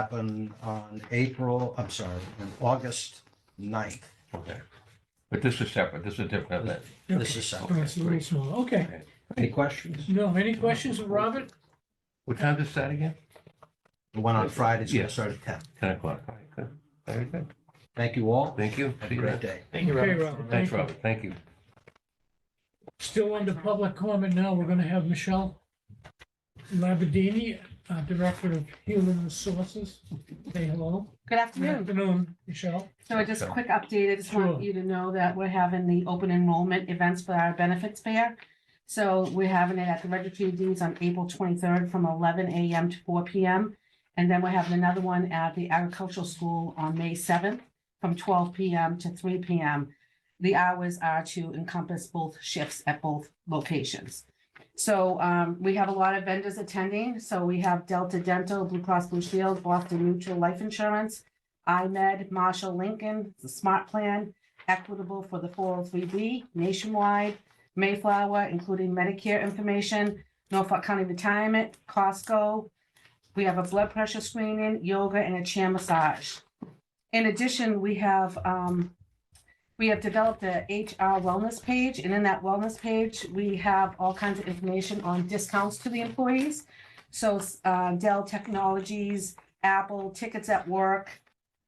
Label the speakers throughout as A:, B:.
A: happen on April, I'm sorry, on August 9th.
B: Okay. But this is separate, this is different than
A: This is
B: Okay.
A: so.
C: Oh, it's a little smaller. Okay.
B: that.
A: Any questions?
C: No, any questions of Robert?
B: What time does that again?
A: The one on Friday is going to
B: Yes.
A: start at 10.
B: Ten o'clock. All right, good. Very good.
A: Thank you all.
B: Thank you.
A: Have
B: See
A: a
B: you
A: great
B: then.
A: day.
D: Thank you,
C: Okay,
D: Robert.
C: Robert.
B: Thanks, Robert. Thank you.
C: Still under public comment now, we're gonna have Michelle Labadini, uh, Director of Human Resources. Say hello.
E: Good
C: Good
E: afternoon.
C: afternoon, Michelle.
E: So I just a
B: Sure.
E: quick update. I just
C: Sure.
E: want you to know that we're having the open enrollment events for our benefits fair. So we're having it at the registry of deeds on April twenty-third from eleven AM to four PM. And then we're having another one at the agricultural school on May seventh from twelve PM to three PM. The hours are to encompass both shifts at both locations. So um, we have a lot of vendors attending. So we have Delta Dental, Blue Cross Blue Shield, Boston Mutual Life Insurance, IMED, E Marshall Lincoln, the Smart Plan, Equitable for the four oh three B, Nationwide, Mayflower, including Medicare information, Norfolk County Retirement, Costco. We have a blood pressure screening, yoga, and a chair massage. In addition, we have, um, we have developed a HR wellness page, and in that wellness page, we have all kinds of information on discounts to the employees. So, uh, Dell Technologies, Apple, tickets at work,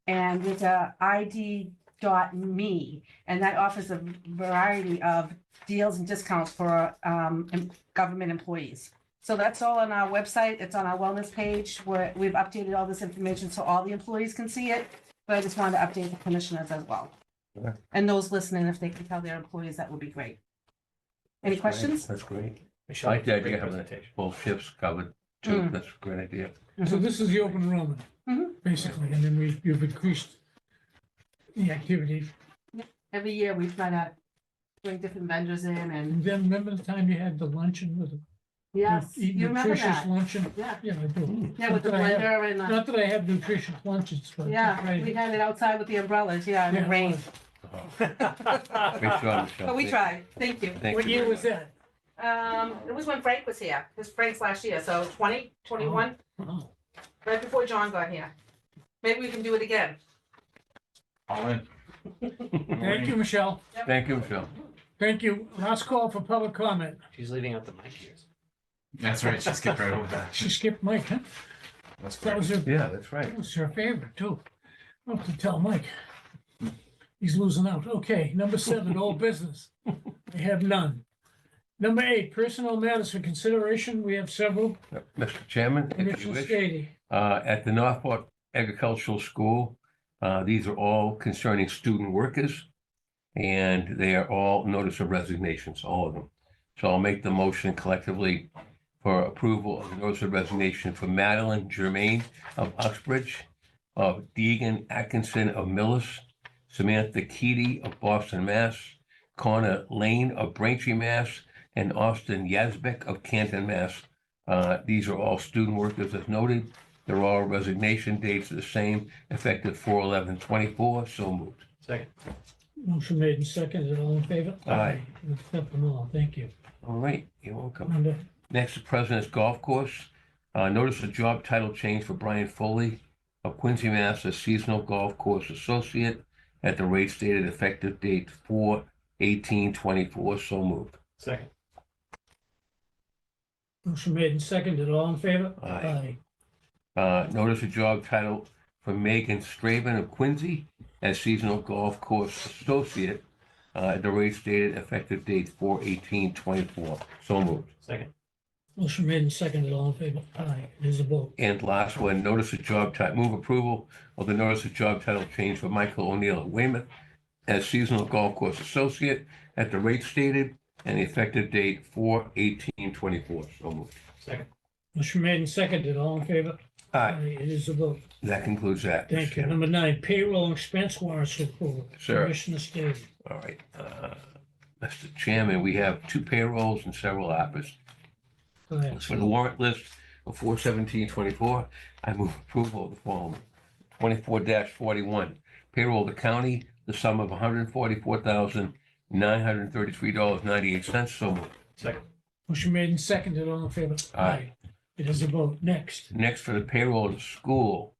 E: and it's a ID dot me, and that offers a variety of deals and discounts for um em- government employees. So that's all on our website. It's on our wellness page where we've updated all this information so all the employees can see it. But I just wanted to update the commissioners as well.
B: Yeah.
E: And those listening, if they can tell their employees, that would be great. Any
B: That's great.
E: questions?
B: That's great.
D: Michelle,
B: Like the idea
D: great
B: of it.
D: presentation.
B: Both shifts covered, too.
E: Mm.
B: That's a great idea.
C: So this is the open enrollment,
E: Mhm.
C: basically, and then we, you've increased the activity.
E: Every year we try to bring different vendors in and
C: And then remember the time you had the luncheon with the
E: yes,
C: eat
E: you remember
C: nutritious
E: that?
C: luncheon?
E: Yeah, Mm.
C: Yeah, I do.
E: yeah, with the
C: Not that I have-
E: blender and the.
C: Not that I have nutritious lunches, but.
E: Yeah, we had it outside with the umbrellas, yeah, in
C: Yeah,
E: the
C: it
E: rain,
C: was.
B: Great job, Michelle.
E: but we tried, thank you.
B: Thank
C: What
B: you
C: year
B: very
C: was
B: much.
C: that?
E: Um, it was when Frank was here, it was Frank's last year, so twenty, twenty-one,
C: Wow. Oh.
E: right before John got here. Maybe we can do it again.
D: All in.
C: Thank you, Michelle.
B: Thank you, Michelle.
C: Thank you. Last call for public comment.
D: She's leaving out the mic here.
F: That's right. Just get right over that.
C: She skipped Mike, huh?
F: That's
C: That was her,
B: Yeah, that's right.
C: that was her favorite, too. I'll have to tell Mike. He's losing out. Okay, number seven, old business. We have none. Number eight, personnel matters for consideration. We have several.
B: Mr. Chairman, if you
C: Commissioner
B: wish.
C: Stady.
B: uh, at the Northport Agricultural School. Uh, These are all concerning student workers, and they are all notice of resignations, all of them. So I'll make the motion collectively for approval of the notice of resignation for Madeline Germain of Uxbridge, of Deegan Atkinson of Millis, Samantha Keady of Boston, Mass, Connor Lane of Braintree, Mass, and Austin Yazbek of Canton, Mass. Uh, These are all student workers as noted. They're all resignation dates are the same, effective four eleven twenty-four, so moved.
D: Second.
C: Motion made and seconded. All in favor?
B: Aye.
C: Let's Accept them all. Thank you.
B: All right, you're welcome.
C: Number
B: Next, the President's Golf Course. Uh, notice a job title change for Brian Foley of Quincy, Mass. as seasonal golf course associate at the rate stated effective date four eighteen twenty-four, so moved.
D: Second.
C: Motion made and seconded. All in favor?
B: Aye. Uh, notice a job title for Megan Straven of Quincy as seasonal golf course associate uh, at the rate stated effective date four eighteen twenty-four, so moved.
D: Second.
C: Motion made and seconded. All in favor? Aye. It is a vote.
B: And last one, notice of job title, move approval of the notice of job title change for Michael O'Neill of Weymouth as seasonal golf course associate at the rate stated and the effective date four eighteen twenty-four. So moved.
D: Second.
C: Motion made and seconded. All in favor?
B: All right,
C: Aye. It is a vote.
B: that concludes that. Mr.
C: Thank you.
B: Chairman.
C: Number nine, payroll and expense warrants for approval.
B: Sure.
C: Commissioner Staley.
B: All right, uh, Mr. Chairman, we have two payrolls and several offers.
C: Go ahead.
B: For the warrant list of four seventeen twenty-four, I move approval of the following. Twenty-four forty-one, payroll to county, the sum of hundred and forty-four thousand, nine hundred and thirty-three dollars, ninety-eight cents. So moved.
D: Second.
C: Motion made and seconded. All in favor?
B: Aye.
C: It is a vote. Next.
B: Next for the payroll to school,